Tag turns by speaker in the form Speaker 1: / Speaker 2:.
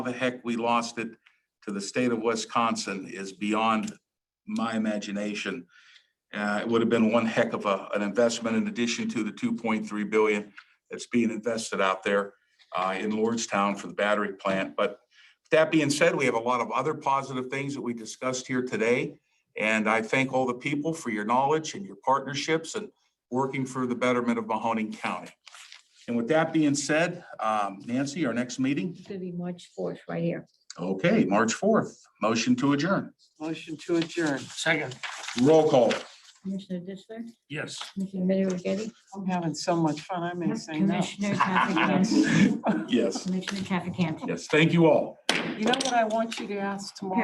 Speaker 1: the heck we lost it to the state of Wisconsin is beyond my imagination. Uh, it would have been one heck of a, an investment in addition to the two point three billion that's being invested out there uh, in Lordstown for the battery plant. But that being said, we have a lot of other positive things that we discussed here today. And I thank all the people for your knowledge and your partnerships and working for the betterment of Mahoning County. And with that being said, um, Nancy, our next meeting,
Speaker 2: It's gonna be March fourth, right here.
Speaker 1: okay, March fourth, motion to adjourn.
Speaker 3: Motion to adjourn.
Speaker 4: Second,
Speaker 1: Roll call.
Speaker 2: Commissioner Ditzler,
Speaker 4: yes.
Speaker 2: Commissioner Middy
Speaker 3: I'm having so much fun. I may say no.
Speaker 2: Commissioner Trafficant,
Speaker 1: Yes,
Speaker 2: Commissioner Trafficant.
Speaker 1: yes, thank you all.
Speaker 3: You know what I want you to ask tomorrow?